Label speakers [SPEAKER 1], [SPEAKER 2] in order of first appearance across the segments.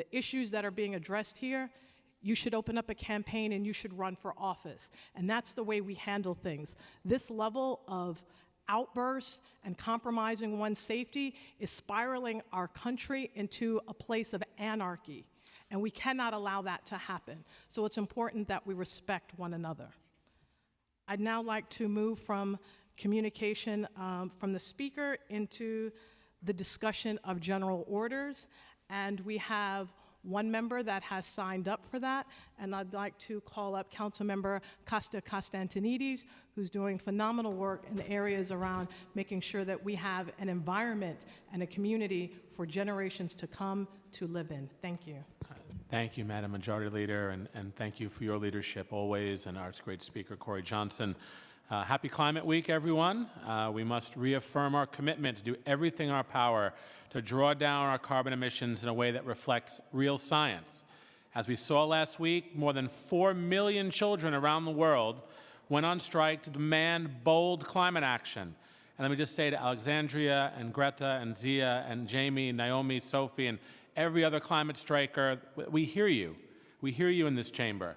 [SPEAKER 1] the issues that are being addressed here, you should open up a campaign and you should run for office. And that's the way we handle things. This level of outbursts and compromising one's safety is spiraling our country into a place of anarchy. And we cannot allow that to happen. So it's important that we respect one another. I'd now like to move from communication um, from the speaker into the discussion of general orders. And we have one member that has signed up for that. And I'd like to call up Councilmember Costa Costantinides, who's doing phenomenal work in the areas around making sure that we have an environment and a community for generations to come to live in. Thank you.
[SPEAKER 2] Thank you, Madam Majority Leader, and, and thank you for your leadership always, and our great speaker, Corey Johnson. Uh, happy Climate Week, everyone. Uh, we must reaffirm our commitment to do everything in our power to draw down our carbon emissions in a way that reflects real science. As we saw last week, more than 4 million children around the world went on strike to demand bold climate action. And let me just say to Alexandria and Greta and Zia and Jamie, Naomi, Sophie, and every other climate striker, we hear you. We hear you in this chamber.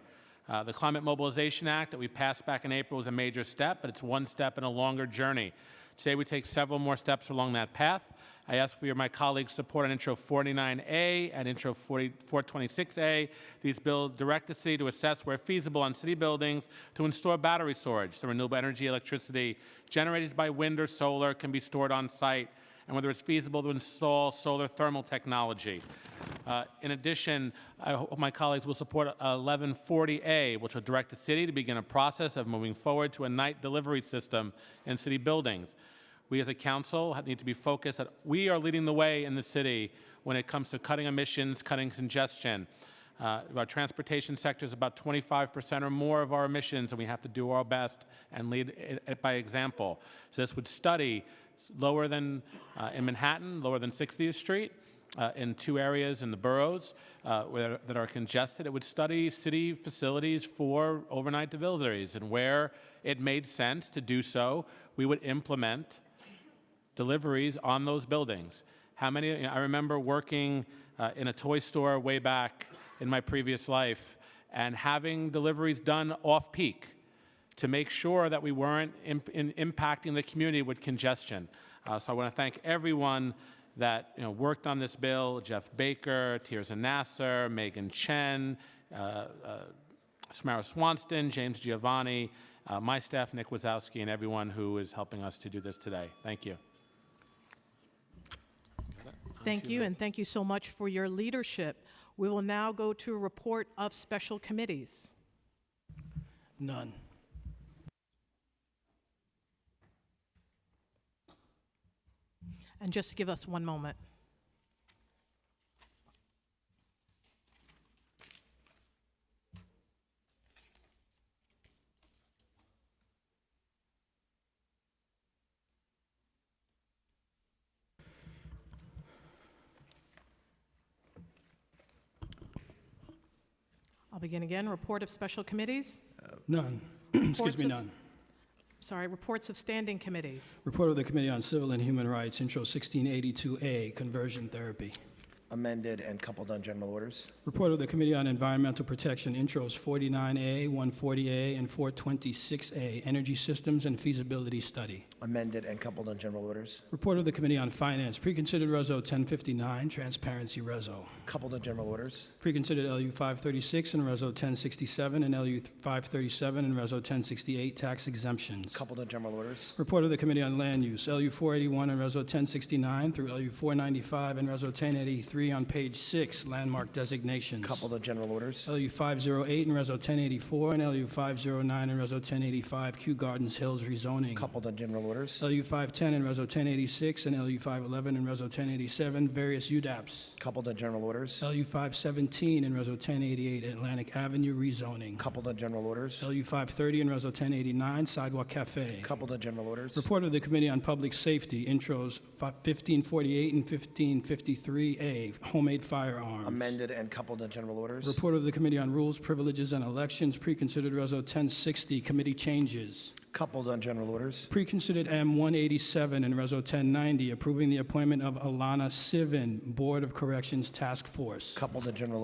[SPEAKER 2] Uh, the Climate Mobilization Act that we passed back in April is a major step, but it's one step in a longer journey. Today we take several more steps along that path. I ask for your, my colleagues' support on Intro 49A and Intro 40, 426A. These bill direct the city to assess where feasible on city buildings to install battery storage so renewable energy electricity generated by wind or solar can be stored on site and whether it's feasible to install solar thermal technology. Uh, in addition, I hope my colleagues will support uh, 1140A, which will direct the city to begin a process of moving forward to a night delivery system in city buildings. We as a council have- need to be focused that we are leading the way in the city when it comes to cutting emissions, cutting congestion. Uh, our transportation sector is about 25% or more of our emissions, and we have to do our best and lead it, it by example. So this would study lower than uh, in Manhattan, lower than 60th Street, uh, in two areas in the boroughs uh, where, that are congested. It would study city facilities for overnight deliveries, and where it made sense to do so, we would implement deliveries on those buildings. How many? you know, I remember working uh, in a toy store way back in my previous life and having deliveries done off peak to make sure that we weren't imp- in impacting the community with congestion. Uh, so I want to thank everyone that you know, worked on this bill: Jeff Baker, Tirza Nasser, Megan Chen, uh, uh, Samara Swanston, James Giovanni, uh, my staff, Nick Wazowski, and everyone who is helping us to do this today. Thank you.
[SPEAKER 1] Thank you, and thank you so much for your leadership. We will now go to a report of special committees.
[SPEAKER 3] None.
[SPEAKER 1] And just give us one moment. I'll begin again. Report of special committees.
[SPEAKER 3] None. Excuse
[SPEAKER 1] Reports
[SPEAKER 3] me,
[SPEAKER 1] of-
[SPEAKER 3] none.
[SPEAKER 1] Sorry, reports of standing committees.
[SPEAKER 3] Report of the Committee on Civil and Human Rights, Intro 1682A, Conversion Therapy.
[SPEAKER 4] amended and coupled on general orders.
[SPEAKER 3] Report of the Committee on Environmental Protection, Intros 49A, 140A, and 426A, Energy Systems and Feasibility Study.
[SPEAKER 4] Amended and coupled on general orders.
[SPEAKER 3] Report of the Committee on Finance, Preconsidered Reso 1059, Transparency Reso.
[SPEAKER 4] Coupled on general orders.
[SPEAKER 3] Preconsidered LU 536 and Reso 1067, and LU 537 and Reso 1068, Tax Exemptions.
[SPEAKER 4] Coupled on general orders.
[SPEAKER 3] Report of the Committee on Land Use, LU 481 and Reso 1069 through LU 495 and Reso 1083 on page 6, landmark designations.
[SPEAKER 4] Coupled on general orders.
[SPEAKER 3] LU 508 and Reso 1084 and LU 509 and Reso 1085, Kew Gardens Hills rezoning.
[SPEAKER 4] Coupled on general orders.
[SPEAKER 3] LU 510 and Reso 1086 and LU 511 and Reso 1087, various UDAPs.
[SPEAKER 4] Coupled on general orders.
[SPEAKER 3] LU 517 and Reso 1088, Atlantic Avenue rezoning.
[SPEAKER 4] Coupled on general orders.
[SPEAKER 3] LU 530 and Reso 1089, Sidewalk Cafe.
[SPEAKER 4] Coupled on general orders.
[SPEAKER 3] Report of the Committee on Public Safety, intros fi- 1548 and 1553A, homemade firearms.
[SPEAKER 4] Amended and coupled on general orders.
[SPEAKER 3] Report of the Committee on Rules, Privileges, and Elections, preconsidered Reso 1060, committee changes.
[SPEAKER 4] coupled on general orders,
[SPEAKER 3] Preconsidered M187 and Reso 1090, approving the appointment of Alana Sivan, Board of Corrections Task Force.
[SPEAKER 4] coupled on general